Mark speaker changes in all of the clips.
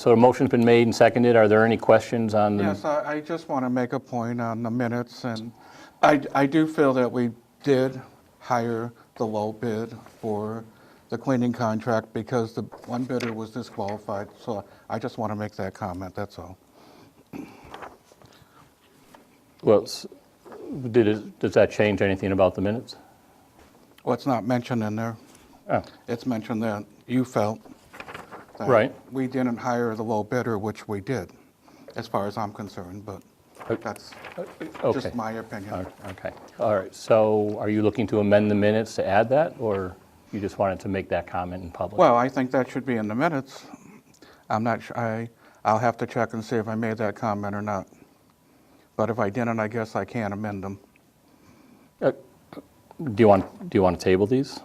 Speaker 1: So a motion's been made and seconded. Are there any questions on the?
Speaker 2: Yes, I, I just want to make a point on the minutes, and I, I do feel that we did hire the low bid for the cleaning contract because the one bidder was disqualified, so I just want to make that comment, that's all.
Speaker 1: Well, s- did, it- does that change anything about the minutes?
Speaker 2: Well, it's not mentioned in there.
Speaker 1: Oh,
Speaker 2: It's mentioned that you felt that
Speaker 1: Right.
Speaker 2: we didn't hire the low bidder, which we did, as far as I'm concerned, but that's
Speaker 1: Uh, okay.
Speaker 2: just my opinion.
Speaker 1: All right, Okay, all right. So are you looking to amend the minutes to add that, or you just wanted to make that comment in public?
Speaker 2: Well, I think that should be in the minutes. I'm not, su- I, I'll have to check and see if I made that comment or not. But if I didn't, I guess I can amend them.
Speaker 1: Do you want, do you want to table these?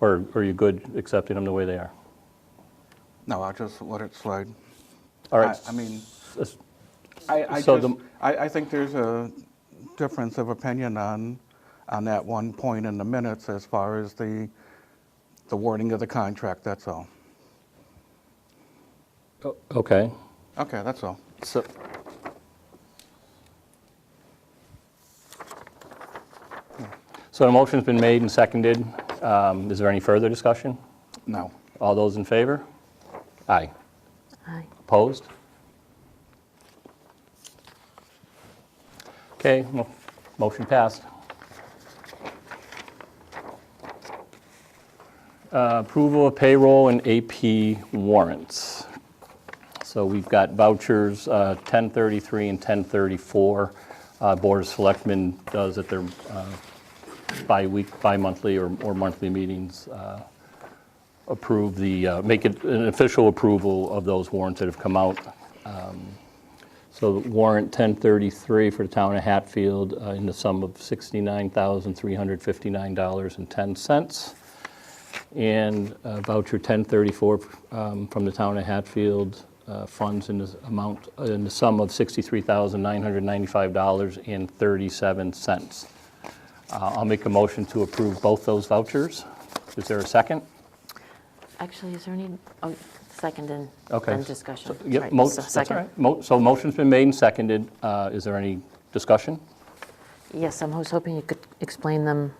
Speaker 1: Or are you good accepting them the way they are?
Speaker 2: No, I'll just let it slide.
Speaker 1: All right.
Speaker 2: I- I mean-
Speaker 1: s-
Speaker 2: I, I
Speaker 1: So
Speaker 2: just,
Speaker 1: the-
Speaker 2: I, I think there's a difference of opinion on, on that one point in the minutes as far as the, the wording of the contract, that's all.
Speaker 1: Okay.
Speaker 2: Okay, that's all.
Speaker 1: So, so a motion's been made and seconded. Um, Is there any further discussion?
Speaker 2: No.
Speaker 1: All those in favor? Aye.
Speaker 3: Aye.
Speaker 1: Opposed? Okay, mo- motion passed. Uh, Approval of payroll and AP warrants. So we've got vouchers uh, 1033 and 1034. Uh, Board of Selectmen does at their uh, bi-week, bi-monthly or or monthly meetings uh, approve the, uh, make it an official approval of those warrants that have come out. Um, So warrant 1033 for the town of Hatfield uh, in the sum of $69,359.10. And uh, voucher 1034 um, from the town of Hatfield, uh, funds in the amount, in the sum of $63,995.37. Uh, I'll make a motion to approve both those vouchers. Is there a second?
Speaker 3: Actually, is there any, oh, second and
Speaker 1: Okay.
Speaker 3: then discussion?
Speaker 1: Yep,
Speaker 3: Right,
Speaker 1: mo-
Speaker 3: so
Speaker 1: that's all
Speaker 3: second.
Speaker 1: right. Mo- So motion's been made and seconded. Uh, Is there any discussion?
Speaker 3: Yes, I'm was hoping you could explain them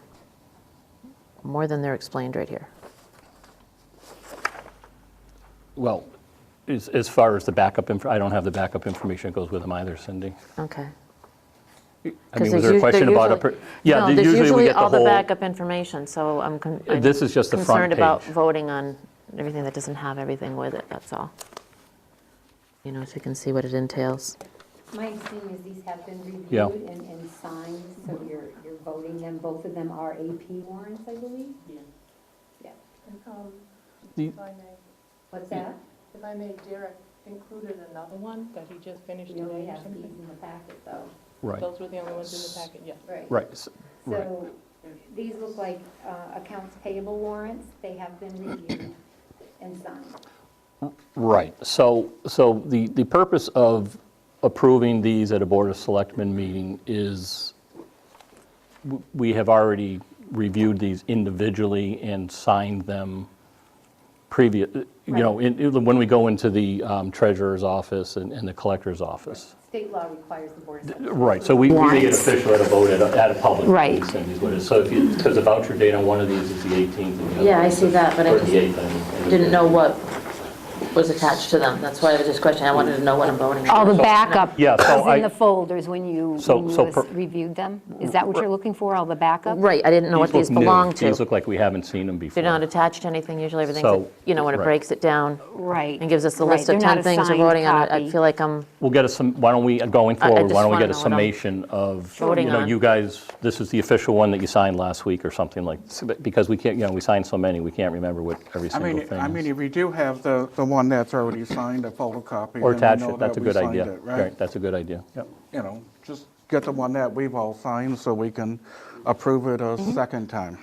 Speaker 3: more than they're explained right here.
Speaker 1: Well, as as far as the backup, inf- I don't have the backup information that goes with them either, Cindy.
Speaker 3: Okay.
Speaker 1: I
Speaker 3: 'Cause
Speaker 1: mean, was
Speaker 3: there's
Speaker 1: there a
Speaker 3: us-
Speaker 1: question
Speaker 3: they're
Speaker 1: about a?
Speaker 3: usually-
Speaker 1: per- Yeah,
Speaker 3: No,
Speaker 1: the-
Speaker 3: there's
Speaker 1: usually we get
Speaker 3: all the
Speaker 1: whole-
Speaker 3: backup information, so I'm con- I'm
Speaker 1: This is just the front
Speaker 3: Concerned about
Speaker 1: page.
Speaker 3: voting on everything that doesn't have everything with it, that's all. You know, so you can see what it entails.
Speaker 4: My understanding is these have been
Speaker 1: Yeah.
Speaker 4: reviewed and, and signed, so you're, you're voting them. Both of them are AP warrants, I believe? Yeah. Yeah.
Speaker 5: Um,
Speaker 1: The-
Speaker 5: If I may,
Speaker 4: What's that?
Speaker 5: if I may, Derek included another one that he just finished
Speaker 4: We only
Speaker 5: today or
Speaker 4: have these
Speaker 5: something.
Speaker 4: in the packet, though.
Speaker 1: Right,
Speaker 5: Those were the only ones in the packet, yes.
Speaker 4: Right.
Speaker 1: right, s- right.
Speaker 4: So these look like uh, accounts payable warrants. They have been reviewed and signed.
Speaker 1: Right, so, so the, the purpose of approving these at a Board of Selectmen meeting is, w- we have already reviewed these individually and signed them previous, you know, in- in- when we go into the um, treasurer's office and and the collector's office.
Speaker 4: State law requires the board of selectmen.
Speaker 1: Right, so we, we make it
Speaker 3: Warrants.
Speaker 1: official at a vote at a, at a public.
Speaker 3: Right.
Speaker 1: meeting, Cindy, is what it is. So if you, because the voucher date on one of these is the 18th and the other.
Speaker 3: Yeah, I see that, but I
Speaker 1: Or
Speaker 3: just
Speaker 1: the 8th, I mean.
Speaker 3: Didn't know what was attached to them, that's why I was just questioning, I wanted to know what I'm voting
Speaker 6: All
Speaker 3: on.
Speaker 6: the backup
Speaker 1: Yeah, so
Speaker 6: was
Speaker 1: I-
Speaker 6: in the folders when you,
Speaker 1: So-
Speaker 6: when
Speaker 1: so
Speaker 6: you
Speaker 1: per-
Speaker 6: reviewed them? Is that what you're looking for, all the backup?
Speaker 3: Right, I didn't know what these
Speaker 1: look new.
Speaker 3: belong
Speaker 1: These
Speaker 3: to.
Speaker 1: look like we haven't seen them before.
Speaker 3: They're not attached to anything, usually everything,
Speaker 1: So,
Speaker 3: you know, when it
Speaker 1: right.
Speaker 3: breaks it down
Speaker 6: Right.
Speaker 3: and gives us the
Speaker 6: Right,
Speaker 3: list of
Speaker 6: they're not
Speaker 3: 10 things we're
Speaker 6: assigned
Speaker 3: voting on, I- I
Speaker 6: copy.
Speaker 3: feel like I'm
Speaker 1: We'll get a, sum- why don't we, uh, going
Speaker 3: I- I
Speaker 1: forward,
Speaker 3: just
Speaker 1: why don't we
Speaker 3: wanna
Speaker 1: get a
Speaker 3: know what I'm
Speaker 1: summation of, you
Speaker 3: voting
Speaker 1: know,
Speaker 3: on.
Speaker 1: you guys, this is the official one that you signed last week or something like, because we can't, you know, we signed so many, we can't remember what every
Speaker 2: I
Speaker 1: single thing
Speaker 2: mean,
Speaker 1: is.
Speaker 2: I mean, if you do have the, the one that's already signed, a photocopy.
Speaker 1: Or
Speaker 2: then we
Speaker 1: attach
Speaker 2: know
Speaker 1: it, that's a
Speaker 2: that we
Speaker 1: good
Speaker 2: signed
Speaker 1: idea.
Speaker 2: it, Right?
Speaker 1: That's a good idea, yep.
Speaker 2: you know, just get the one that we've all signed so we can approve it a second time.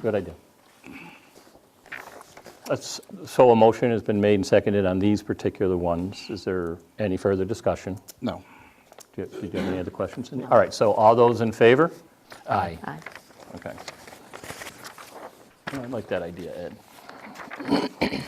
Speaker 1: Good idea. That's- So a motion has been made and seconded on these particular ones. Is there any further discussion?
Speaker 2: No.
Speaker 1: Do you do you have any other questions? Cindy? All right, so all those in favor? Aye.
Speaker 3: Aye.
Speaker 1: Okay. I like that idea, Ed.